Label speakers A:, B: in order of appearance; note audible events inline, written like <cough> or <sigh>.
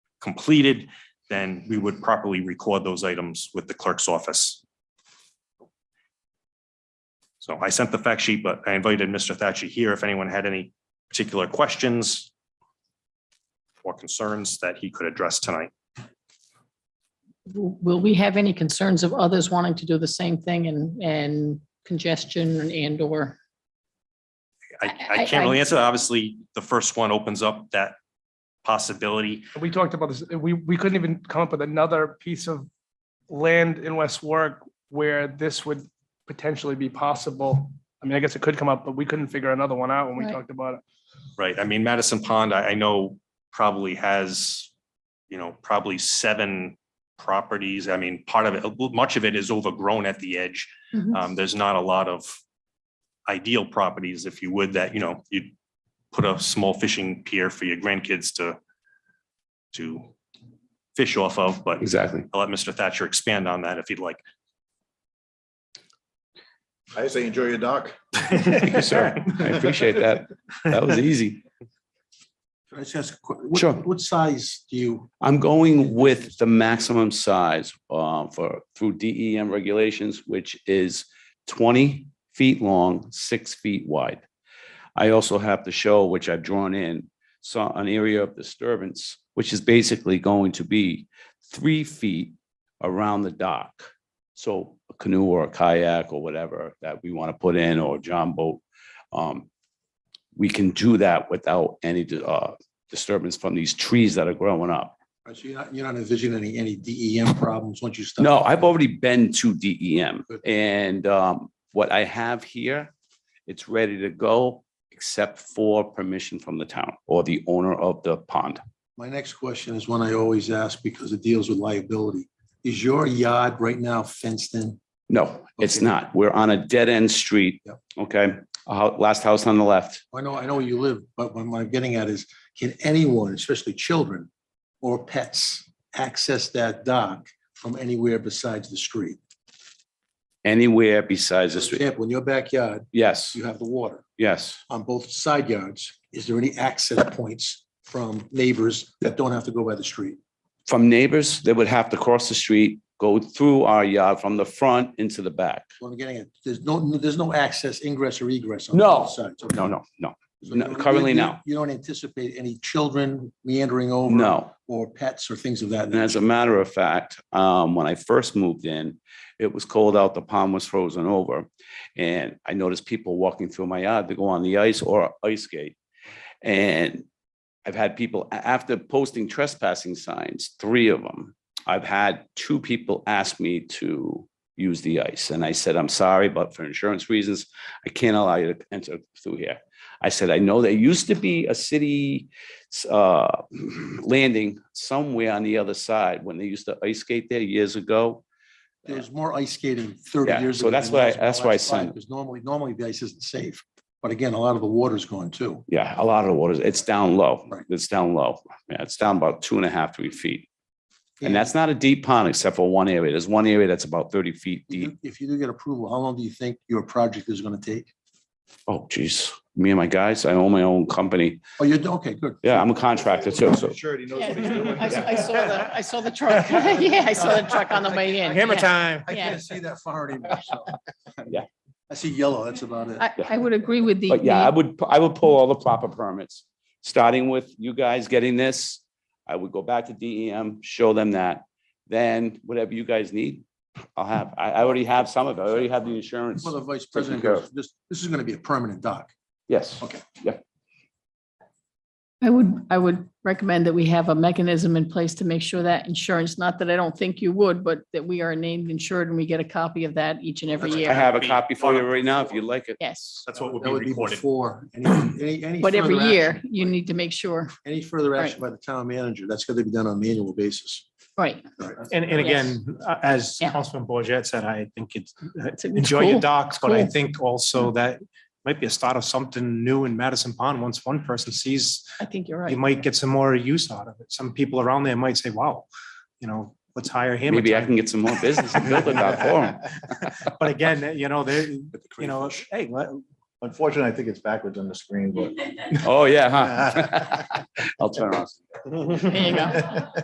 A: completed, then we would properly record those items with the clerk's office. So I sent the fact sheet, but I invited Mr. Thatcher here if anyone had any particular questions or concerns that he could address tonight.
B: Will we have any concerns of others wanting to do the same thing and, and congestion and or?
A: I, I can't really answer. that. Obviously, the first one opens up that possibility.
C: We talked about this, we, we couldn't even come up with another piece of land in West Warwick where this would potentially be possible. I mean, I guess it could come up, but we couldn't figure another one out when we
B: Right.
C: talked about it.
A: Right, I mean, Madison Pond, I, I know probably has, you know, probably seven properties. I mean, part of it, much of it is overgrown at the edge.
B: Mm-hmm.
A: Um, there's not a lot of ideal properties, if you would, that, you know, you'd put a small fishing pier for your grandkids to, to fish off of, but
D: Exactly.
A: I'll let Mr. Thatcher expand on that if he'd like.
E: I say enjoy your dock.
D: Thank you, sir. I appreciate that. That was easy.
F: Can I just ask, a que- what,
D: Sure.
F: what size do you,
D: I'm going with the maximum size uh, for, through DEM regulations, which is 20 feet long, six feet wide. I also have to show, which I've drawn in, so an area of disturbance, which is basically going to be three feet around the dock. So a canoe or a kayak or whatever that we want to put in or john boat. um, We can do that without any uh, disturbance from these trees that are growing up.
F: so you're not, you're not envisioning any, any DEM problems once you start?
D: No, I've already been to DEM
F: Good.
D: and um, what I have here, it's ready to go except for permission from the town or the owner of the pond.
F: My next question is one I always ask because it deals with liability. Is your yard right now fenced in?
D: No, it's
F: Okay.
D: not. We're on a dead end street.
F: Yep.
D: Okay, A hou- last house on the left.
F: I know, I know where you live, but what I'm getting at is, can anyone, especially children or pets, access that dock from anywhere besides the street?
D: Anywhere besides
F: For
D: the street.
F: example, in your backyard,
D: Yes,
F: you have the water.
D: yes.
F: on both side yards, is there any access points from neighbors that don't have to go by the street?
D: From neighbors, they would have to cross the street, go through our yard from the front into the back.
F: What I'm getting at, there's no, there's no access ingress or egress on
D: No.
F: both sides. okay?
D: No, no, no,
F: So you don't-
D: currently,
F: you-
D: no.
F: You don't anticipate any children meandering over?
D: no.
F: Or pets or things of that
D: And as
F: nature?
D: a matter of fact, um, when I first moved in, it was cold out, the pond was frozen over. And I noticed people walking through my yard to go on the ice or ice skate. And I've had people, a- after posting trespassing signs, three of them, I've had two people ask me to use the ice. And I said, I'm sorry, but for insurance reasons, I can't allow you to enter through here. I said, I know there used to be a city s- uh, <clears throat> landing somewhere on the other side when they used to ice skate there years ago.
F: There was more ice skating thirty
D: Yeah,
F: years
D: so
F: ago.
D: that's
F: than
D: why-
F: there is in the
D: that's why I
F: last five,
D: said-
F: Because normally, normally the ice isn't safe. But again, a lot of the water's gone too.
D: Yeah, a lot of the waters, it's down low.
F: Right.
D: It's down low. Yeah, it's down about two and a half, three feet. And that's not a deep pond except for one area. There's one area that's about thirty feet
F: If you
D: deep.
F: do- if you do get approval, how long do you think your project is going to take?
D: Oh, geez, me and my guys, I own my own company.
F: Oh, you're, okay, good.
D: Yeah, I'm a contractor too, so.
E: Sure, he knows what he's doing.
B: <laughs> I s- I saw the, I saw the <laughs> truck. Yeah, I saw the truck on the way in.
C: Hammer
B: Yeah.
C: time.
F: I
B: Yeah.
F: can't see that far anymore, so.
D: <laughs> Yeah.
F: I see yellow, that's about it.
B: I, I would agree with the.
D: But yeah, I
B: the-
D: would, I would pull all the proper permits, starting with you guys getting this. I would go back to DEM, show them that, then whatever you guys need, I'll have, I, I already have some of it. I already have the insurance.
F: Well, the vice president
D: care
F: goes, this, this is gonna be a permanent dock.
D: Yes,
F: Okay.
B: I would, I would recommend that we have a mechanism in place to make sure that insurance, not that I don't think you would, but that we are named insured and we get a copy of that each and every
A: That's-
D: I
B: year.
D: have a copy for you right now if you'd like it.
B: Yes.
A: That's what would
F: That
A: be
F: would be
A: recorded.
F: before, any, any, any.
B: But every
F: further
B: year
F: action-
B: you need to make sure,
F: Any further action by the town manager, that's gonna be done on an annual basis.
B: right.
G: And, and again, uh, as
B: Oh, Yeah.
G: Councilman Bourget said, I think it's,
B: It's- it's
G: enjoy your
B: cool.
G: docs, but I
B: cool.
G: think also that might be a start of something new in Madison Pond. Once one person sees,
B: I think you're
G: you
B: right.
G: might get some more use out of it. Some people around there might say, wow, you know, let's hire him.
D: Maybe I can get some more business and build it out for them.
F: <laughs>
G: But again, you know, they, you know, hey, let-
E: Unfortunately, I think it's backwards on the screen, but.
D: <laughs>
F: <laughs>
D: Oh, yeah, huh? I'll turn around.
B: There you go.